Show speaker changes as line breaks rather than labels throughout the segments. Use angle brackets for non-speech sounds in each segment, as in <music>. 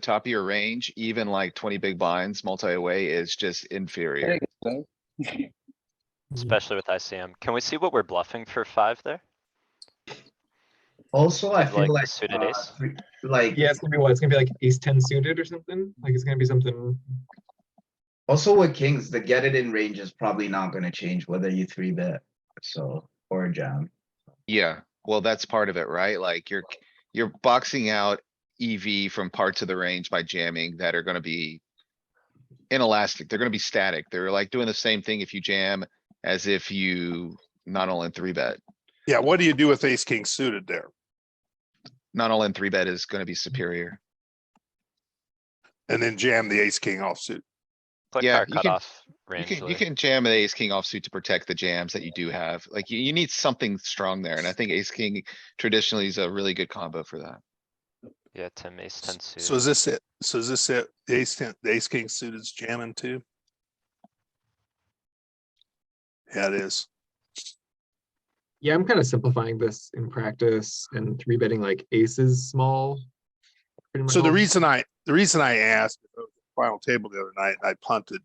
top of your range, even like twenty big blinds, multi-way is just inferior.
So, <laughs> Mm-hmm.
Especially with ICM. Can we see what we're bluffing for five there?
Also, I feel
Like
like,
suited
uh,
ace?
three- like
Yeah, it's gonna be what? It's gonna be like ace ten suited or something? Like it's gonna be something.
also with kings, the get it in range is probably not gonna change whether you three bet, so, or jam.
Yeah, well, that's part of it, right? Like you're, you're boxing out EV from parts of the range by jamming that are gonna be. Inelastic, they're gonna be static. They're like doing the same thing if you jam as if you not all in three bet.
Yeah, what do you do with ace king suited there?
Not all in three bet is gonna be superior.
And then jam the ace king offsuit.
Click
Yeah,
our
you can-
cutoff
You
range.
can, you
Louis.
can jam an ace king offsuit to protect the jams that you do have. Like you, you need something strong there. And I think ace king traditionally is a really good combo for that.
Yeah, Tim, ace ten
So is
suited.
this it? So is this it? The Ace ten, the ace king suited is jamming too? Yeah, it is.
Yeah, I'm kind of simplifying this in practice and three betting like aces small. pretty much
So the
all.
reason I, the reason I asked uh, final table the other night, I punted,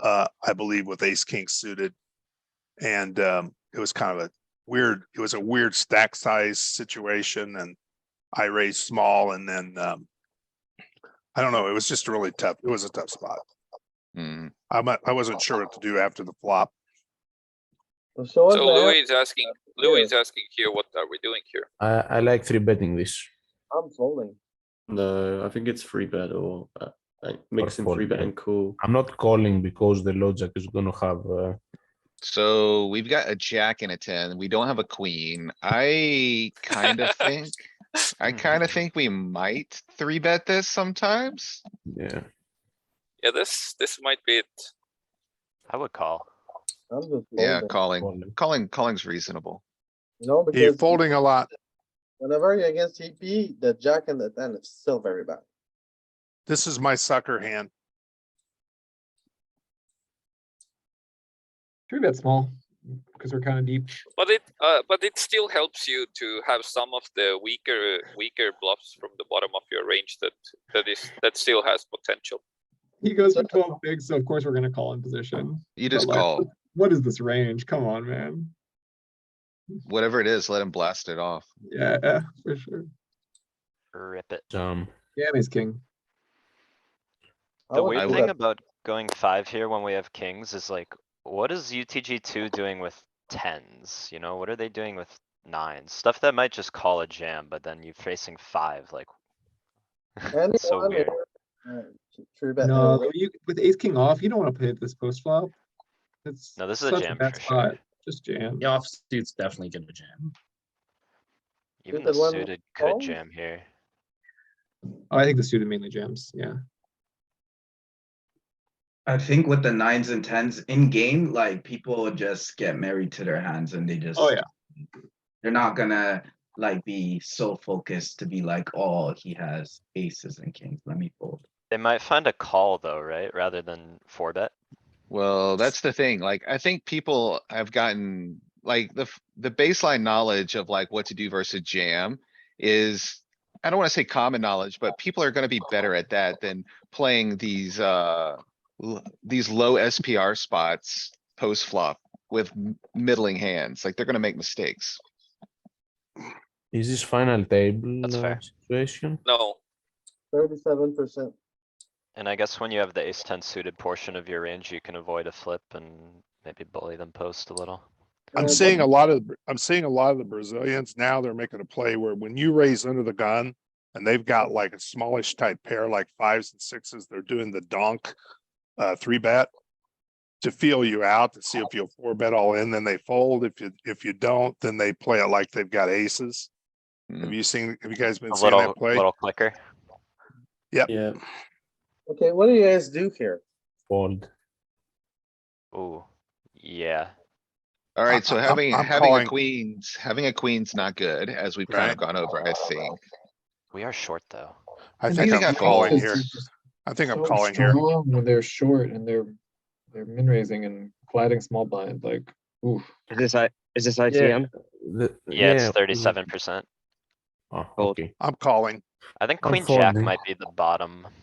uh, I believe with ace king suited. And, um, it was kind of a weird, it was a weird stack size situation and I raised small and then, um, I don't know, it was just really tough. It was a tough spot.
Hmm.
I'm, not- I wasn't sure what to do after the flop.
so what
So
the
Louis
heck?
is asking,
Uh,
Louis is asking here, what are we doing here?
I, I like three betting this.
I'm folding.
No, I think it's free bet or uh, like mixing
four
free bet
bet.
and cool.
I'm not calling because the logic is gonna have. Uh,
So we've got a jack and a ten. We don't have a queen. I
<laughs>
kinda think, I kinda think we might three bet this sometimes.
yeah,
Yeah, this, this might be it.
I would call.
I'm just
Yeah,
folding.
calling,
calling.
calling, calling's reasonable.
No,
You're
because
folding a lot.
whenever you're against TP, the jack and the ten is still very bad.
This is my sucker hand.
Three bet small, because we're kind of deep.
But it, uh, but it still helps you to have some of the weaker, weaker bluffs from the bottom of your range that, that is, that still has potential.
He goes for twelve bigs, so of course we're gonna call in position.
You just
like-
call,
What is this range? Come on, man.
whatever it is, let him blast it off.
Yeah, for sure.
Rip it.
jam.
Yeah, and he's king.
I
The
would
weird
do
thing
that.
about going five here when we have kings is like, what is UTG two doing with tens? You know, what are they doing with nines? Stuff that might just call a jam, but then you're facing five, like. <laughs> It's so
Anyone
weird.
over- Alright, th- Three bet.
No,
anyway.
you, with ace king off, you don't want to play this post flop. It's
No, this is a
such
jam
bad
for sure.
spot. Just jam.
The offsuit's definitely gonna jam.
Even the
Suited one
suited could
calls?
jam here.
Oh, I think the suited mainly jams, yeah.
I think with the nines and tens in game, like, people just get married to their hands and they just.
Oh, yeah.
They're not gonna, like, be so focused to be like, oh, he has aces and kings, let me fold.
They might find a call though, right? Rather than four bet.
Well, that's the thing. Like, I think people have gotten, like, the, f- the baseline knowledge of like what to do versus jam is, I don't wanna say common knowledge, but people are gonna be better at that than playing these, uh, l- these low SPR spots post flop with m- middling hands. Like, they're gonna make mistakes.
Is this final table
That's
uh,
fair.
situation?
No,
Thirty-seven percent.
And I guess when you have the ace ten suited portion of your range, you can avoid a flip and maybe bully them post a little.
I'm seeing a lot of, I'm seeing a lot of the Brazilians now, they're making a play where when you raise under the gun and they've got like a smallish type pair, like fives and sixes, they're doing the donk, uh, three bet to feel you out, to see if you'll four bet all in, then they fold. If you, if you don't, then they play it like they've got aces. Have
Mm.
you seen, have you guys been
A
seeing
little,
that play?
little clicker.
Yeah,
Okay, what do you guys do here?
Fold.
Ooh, yeah.
Alright, so
I'm-
having,
I'm
having a
calling.
queens, having a queen's not good, as we've kind of
Right.
gone over, I think.
We are short though.
I
I
think
think I
I'm
called
calling
it.
here. I think I'm
so
calling here.
strong When they're short and they're, they're min raising and colliding small blind, like, oof.
Is this I, is this ICM?
The- Ah,
Yeah, it's
we-
thirty-seven percent.
Oh,
Fold.
okay.
I'm calling.
I think
I'm
queen jack
folding.
might be the bottom.